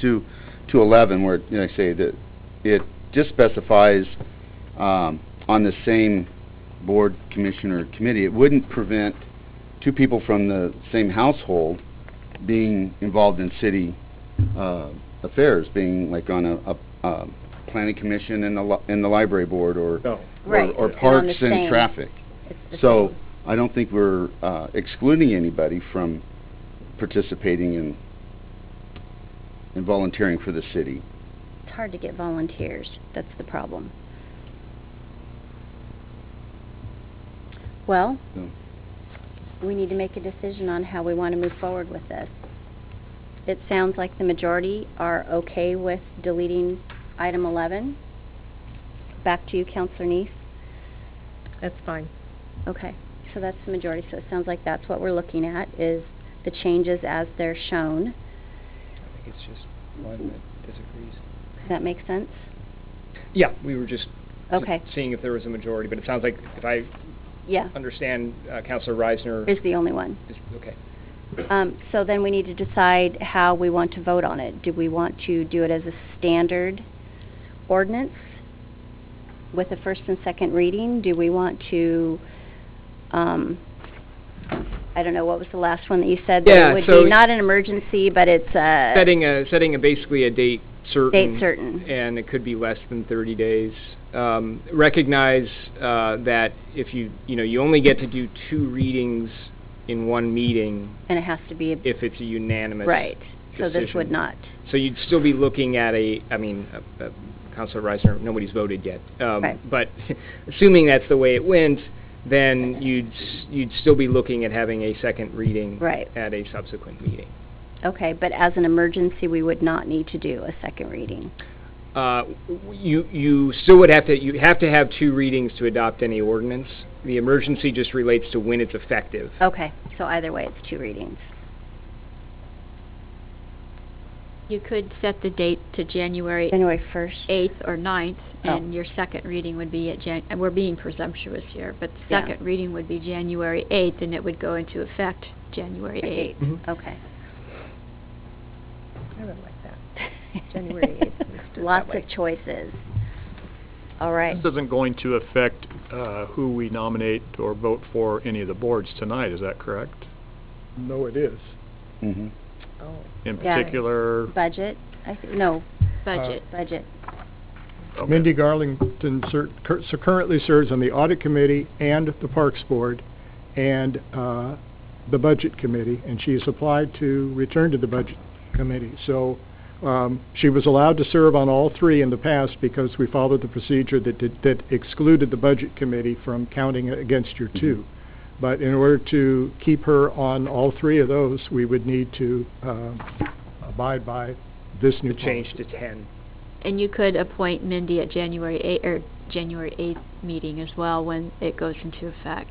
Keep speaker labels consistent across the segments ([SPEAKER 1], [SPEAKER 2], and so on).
[SPEAKER 1] two, two eleven, where, you know, I say that it just specifies, um, on the same board, commission, or committee, it wouldn't prevent two people from the same household being involved in city, uh, affairs, being like on a, a, uh, planning commission and the li- and the library board, or,
[SPEAKER 2] No.
[SPEAKER 1] or-
[SPEAKER 3] Right,
[SPEAKER 1] or
[SPEAKER 3] Oh. and on
[SPEAKER 1] parks
[SPEAKER 3] the
[SPEAKER 1] and
[SPEAKER 3] same.
[SPEAKER 1] traffic.
[SPEAKER 3] It's the
[SPEAKER 1] So,
[SPEAKER 3] same.
[SPEAKER 1] I don't think we're uh, excluding anybody from participating in, in volunteering for the city.
[SPEAKER 3] It's hard to get volunteers, that's the problem. Well,
[SPEAKER 1] No.
[SPEAKER 3] we need to make a decision on how we want to move forward with this. It sounds like the majority are okay with deleting item 11. Back to you, Counselor Neese.
[SPEAKER 4] That's fine.
[SPEAKER 3] Okay, so that's the majority, so it sounds like that's what we're looking at, is the changes as they're shown.
[SPEAKER 5] I think it's just one that disagrees.
[SPEAKER 3] Does that make sense?
[SPEAKER 5] Yeah, we were just just
[SPEAKER 3] Okay.
[SPEAKER 5] seeing if there was a majority, but it sounds like if I
[SPEAKER 3] Yeah,
[SPEAKER 5] understand, uh, Counselor Reisner
[SPEAKER 3] is the only one.
[SPEAKER 5] is, okay.
[SPEAKER 3] Um, so then we need to decide how we want to vote on it. Do we want to do it as a standard ordinance with a first and second reading? Do we want to, um, I don't know, what was the last one that you said? that
[SPEAKER 5] Yeah,
[SPEAKER 3] It would
[SPEAKER 5] so-
[SPEAKER 3] be not an emergency, but it's a...
[SPEAKER 5] Setting a, setting a basically a date certain.
[SPEAKER 3] Uh, Date certain.
[SPEAKER 5] And it could be less than 30 days. Um, Recognize uh, that if you, you know, you only get to do two readings in one meeting
[SPEAKER 3] And it has to be, a-
[SPEAKER 5] if it's a unanimous.
[SPEAKER 3] right. So this would
[SPEAKER 5] decision.
[SPEAKER 3] not,
[SPEAKER 5] So you'd still be looking at a, I mean, uh, uh, Counselor Reisner, nobody's voted yet. Um,
[SPEAKER 3] Right.
[SPEAKER 5] But assuming that's the way it went, then you'd, s- you'd still be looking at having a second reading.
[SPEAKER 3] Right.
[SPEAKER 5] At a subsequent meeting.
[SPEAKER 3] okay, but as an emergency, we would not need to do a second reading.
[SPEAKER 5] Uh, w- You, you still would have to, you have to have two readings to adopt any ordinance. The emergency just relates to when it's effective.
[SPEAKER 3] Okay, so either way, it's two readings.
[SPEAKER 6] You could set the date to January
[SPEAKER 3] January 1st.
[SPEAKER 6] 8th or 9th,
[SPEAKER 3] Oh.
[SPEAKER 6] and your second reading would be at Jan, and we're being presumptuous here, but the
[SPEAKER 3] Yeah.
[SPEAKER 6] second reading would be January 8th, and it would go into effect January 8th.
[SPEAKER 5] Mhm.
[SPEAKER 3] Okay.
[SPEAKER 4] I really like that. January 8th, let's do it that
[SPEAKER 3] Lots
[SPEAKER 4] way.
[SPEAKER 3] of choices. All right.
[SPEAKER 2] This isn't going to affect uh, who we nominate or vote for any of the boards tonight, is that correct?
[SPEAKER 7] No, it is.
[SPEAKER 1] Mm-hmm.
[SPEAKER 4] Oh.
[SPEAKER 2] In
[SPEAKER 3] Yeah.
[SPEAKER 2] particular...
[SPEAKER 3] Budget, I thi- no,
[SPEAKER 6] Budget.
[SPEAKER 3] budget.
[SPEAKER 2] okay.
[SPEAKER 7] Mindy Garlington cer- cur- so currently serves on the Audit Committee and the Parks Board and uh, the Budget Committee, and she's applied to return to the Budget Committee. So um, she was allowed to serve on all three in the past because we followed the procedure that did- that excluded the Budget Committee from counting against your two. But in order to keep her on all three of those, we would need to uh, abide by this new
[SPEAKER 5] To
[SPEAKER 7] policy.
[SPEAKER 5] change to 10.
[SPEAKER 6] And you could appoint Mindy at January 8th, or January 8th meeting as well, when it goes into effect.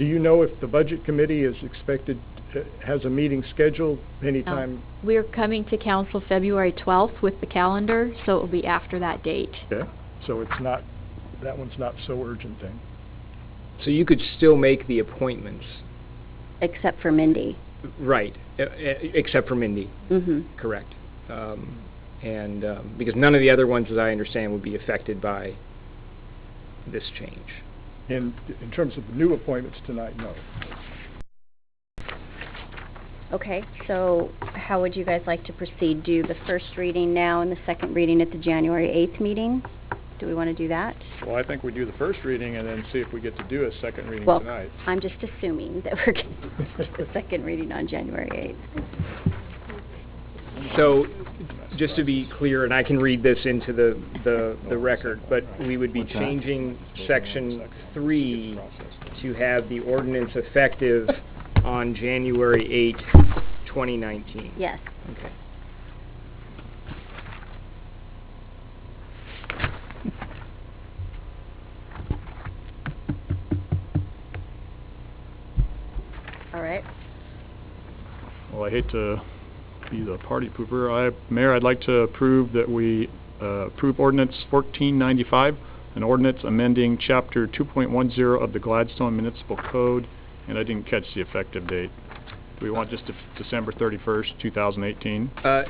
[SPEAKER 7] Do you know if the Budget Committee is expected, uh, has a meeting scheduled anytime?
[SPEAKER 6] We're coming to council February 12th with the calendar, so it will be after that date.
[SPEAKER 7] Okay. So it's not, that one's not so urgent then?
[SPEAKER 5] So you could still make the appointments.
[SPEAKER 3] Except for Mindy.
[SPEAKER 5] Right, e- e- except for Mindy.
[SPEAKER 3] Mm-hmm.
[SPEAKER 5] Correct. Um, And, um, because none of the other ones, as I understand, would be affected by this change.
[SPEAKER 7] In, in terms of new appointments tonight, no.
[SPEAKER 3] Okay, so how would you guys like to proceed? Do the first reading now and the second reading at the January 8th meeting? Do we want to do that?
[SPEAKER 2] Well, I think we do the first reading and then see if we get to do a second reading
[SPEAKER 3] Well,
[SPEAKER 2] tonight.
[SPEAKER 3] I'm just assuming that we're going to do the second reading on January 8th.
[SPEAKER 5] So, just to be clear, and I can read this into the, the, the record, but we would be
[SPEAKER 1] What's that?
[SPEAKER 5] changing section three to have the ordinance effective on January 8, 2019.
[SPEAKER 3] Yes.
[SPEAKER 5] Okay.
[SPEAKER 3] All right.
[SPEAKER 2] Well, I hate to be the party pooper. I, Mayor, I'd like to approve that we uh, approve ordinance 1495, an ordinance amending Chapter 2.10 of the Gladstone Municipal Code, and I didn't catch the effective date. Do we want just Dec- December 31st, 2018?
[SPEAKER 5] Uh,